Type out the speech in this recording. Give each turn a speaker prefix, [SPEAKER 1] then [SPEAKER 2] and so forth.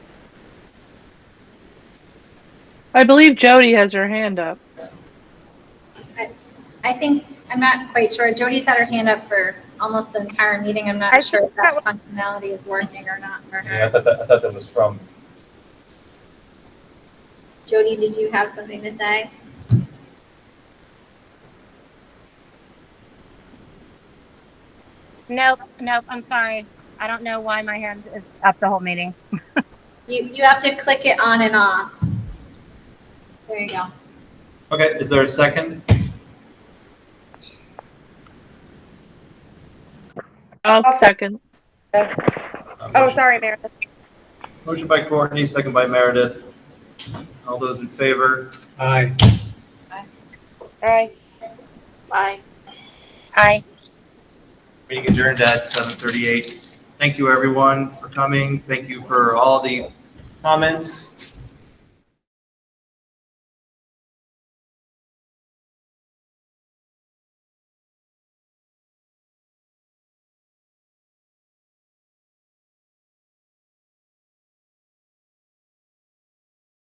[SPEAKER 1] I believe Jody has her hand up.
[SPEAKER 2] I think, I'm not quite sure. Jody's had her hand up for almost the entire meeting. I'm
[SPEAKER 3] I
[SPEAKER 2] not
[SPEAKER 3] think
[SPEAKER 2] sure if
[SPEAKER 3] that
[SPEAKER 2] that functionality is working or not for
[SPEAKER 4] Yeah,
[SPEAKER 2] her.
[SPEAKER 4] I thought that, I thought that was from,
[SPEAKER 2] Jody, did you have something to say?
[SPEAKER 3] Nope, nope, I'm sorry. I don't know why my hand is up the whole meeting.
[SPEAKER 2] You, you have to click it on and off. There you go.
[SPEAKER 4] okay, is there a second?
[SPEAKER 1] I'll
[SPEAKER 3] I'll
[SPEAKER 1] second.
[SPEAKER 4] Uh,
[SPEAKER 3] Oh,
[SPEAKER 4] motion-
[SPEAKER 3] sorry, Meredith.
[SPEAKER 4] Motion by Courtney, second by Meredith. All those in favor?
[SPEAKER 5] Aye.
[SPEAKER 3] Aye.
[SPEAKER 6] Bye.
[SPEAKER 3] Aye.
[SPEAKER 4] Meeting adjourned at 7:38. Thank you, everyone, for coming. Thank you for all the comments.